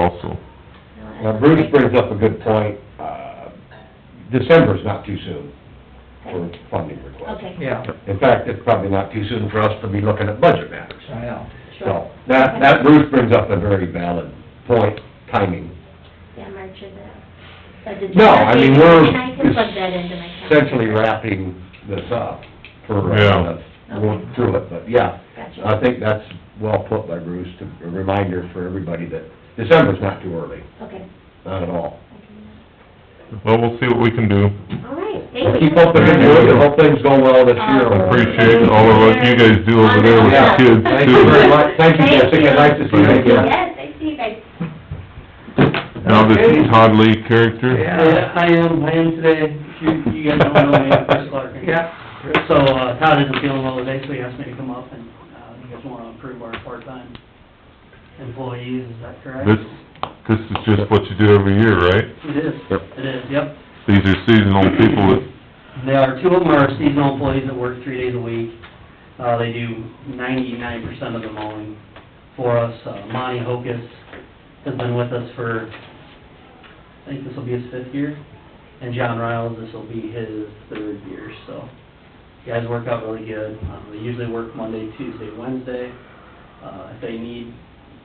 also. Now Bruce brings up a good point, uh, December's not too soon for funding requests. Okay. Yeah, In fact, it's probably not too soon for us to be looking at budget matters. I know. So, Sure. that, that Bruce brings up a very valid point, timing. Yeah, March is a, a December. No, I mean, we're And I can plug that into my calendar. essentially wrapping this up for, Yeah. uh, going through it, but yeah. I Gotcha, think that's well put by Bruce, to, a reminder for everybody that December's not too early, okay. not at all. I can Well, we'll see what we can do. do that. All right, thank We'll you. Um, keep up the good work, and hope things go well this year. Awesome. Appreciate all of what you guys do over there with the Yeah. kids Thank you very too. much, thank you, Thank Jessica, you. nice to see you Thank you. again. Yes, I see you guys. Now this Todd Lee character, Yeah, I am, I am today, you, you guys don't know me, I'm Chris Larkin. Yeah, So, uh, Todd isn't feeling well today, so he asked me to come up and, uh, you guys wanna approve our part-time employees, is that correct? this, this is just what you do every year, right? It is, Yep. it is, yep. These are seasonal people that There are, two of them are seasonal employees that work three days a week. Uh, they do ninety-nine percent of the mowing for us. Uh, Monty Hocus has been with us for, I think this will be his fifth year. And John Riles, this will be his third year, so. Guys work out really good. Um, they usually work Monday, Tuesday, Wednesday. Uh, if they need,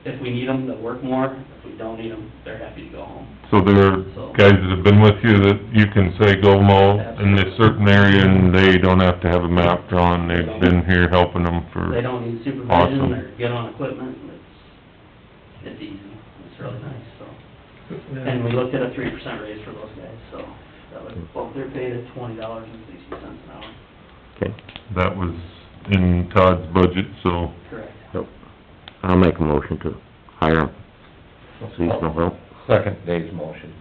if we need them, they'll work more. If we don't need them, they're happy to go home. So there are guys that have been with you that you can say, go mow in this certain area, and they don't have to have a map drawn, they've been here helping them They for, don't need Hmm. Awesome. supervision, they're good on equipment, and it's, it's easy, it's really nice, so. And we looked at a three percent raise for those guys, so, that would, well, they're paid at twenty dollars and sixty cents an hour. that was in Todd's budget, so Correct. I'll make a motion to hire him, seasonal help. Second day's motion.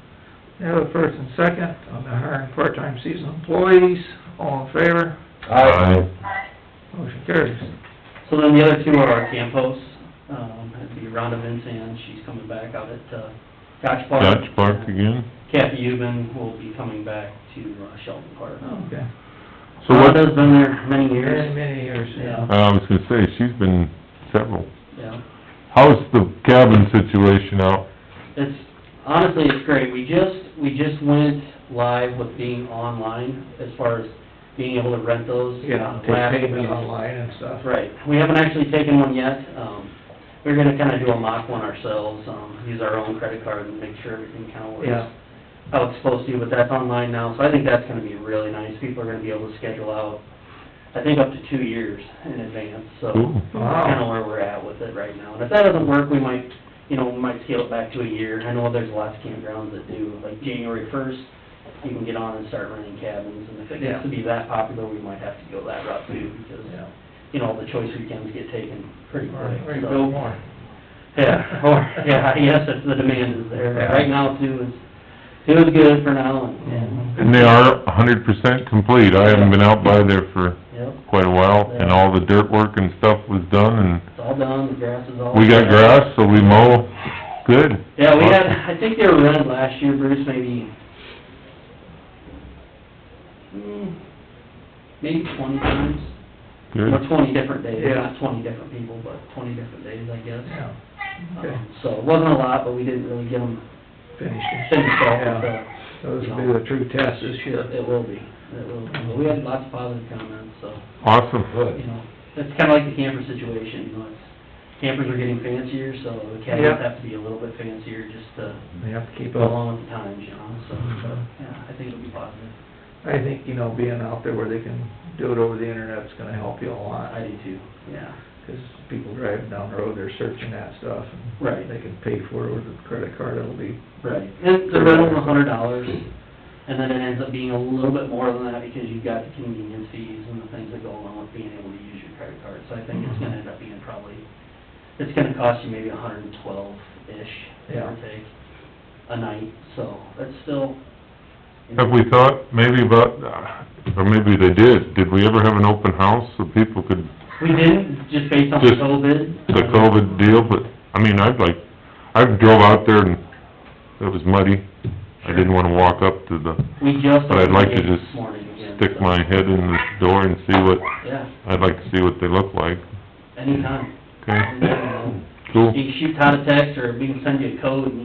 now the first and second on the hiring part-time seasonal employees, all in favor, Aye. motion carries. So then the other two are our campos, um, it'd be Rhonda Vincent, she's coming back out at, uh, Gotch Park. Dutch Park again. Kathy Uben will be coming back to uh, Shelton Park. Okay, So what, Rhonda's been there many many, years, many years, yeah. Yeah. I was gonna say, she's been several. yeah. How's the cabin situation out? It's, honestly, it's great. We just, we just went live with being online as far as being able to rent those. Yeah, uh, last- take payment online and stuff. That's right. We haven't actually taken one yet. Um, we're gonna kinda do a mock one ourselves, um, use our own credit card and make sure everything kinda Yeah. works how it's supposed to, but that's online now, so I think that's gonna be really nice. People are gonna be able to schedule out, I think, up to two years in advance, so. Cool. That's kinda Wow, where we're at with it right now. And if that doesn't work, we might, you know, we might scale it back to a year. I know there's lots of campgrounds that do, like January first, you can get on and start renting cabins, and if it Yeah. gets to be that popular, we might have to go that route too, because, yeah, you know, the choice weekends get taken pretty or, or quick, you build so. more. Yeah, or, yeah, yes, if the demand is there. Yeah. Right now, too, is, it was good for now, and, Mm-hmm. and, And they are a hundred percent complete. I haven't been out by there for yep, quite a while, and all the dirt work and stuff was done, and it's all done, the grass is all. We got set. grass, so we mow, good. Yeah, we had, I think they were red last year, Bruce, maybe, hmm, maybe twenty times, Good. or twenty different days, Yeah. not twenty different people, but twenty different days, I guess. Yeah, okay, Um, So it wasn't a lot, but we didn't really get them finish it. finished off, Yeah. so So this will be the true test this year. it will be, it will be. But we had lots of positive comments, so, Awesome. you know, it's kinda like the camper situation, you know, it's, campers are getting fancier, so the Yeah. cabins have to be a little bit fancier just to They have to keep go up. along with the times, you know, so, but, yeah, I think it'll be positive. I think, you know, being out there where they can do it over the internet's gonna help you a lot. I do too, yeah. Because people driving down the road, they're searching that stuff. and Right. They can pay for it with a credit card, it'll be, Right. And the rental's a hundred dollars, and then it ends up being a little bit more than that because you've got the convenience fees and the things that go along with being able to use your credit card. So I think it's gonna end up being probably, it's gonna cost you maybe a hundred and twelve-ish, give Yeah. or take, a night, so that's still. you know, Have we thought maybe about, uh, or maybe they did, did we ever have an open house so people could, We didn't, just based on Just COVID. the COVID deal, but, I mean, I'd like, I drove out there and it was muddy. I didn't wanna walk up to the, We just. but I'd like to opened it just this morning again, stick so, my head in the door and see what, Yeah, I'd like to see what they look like, anytime. okay? You know, Cool. You can shoot Todd a text or we can send you a code and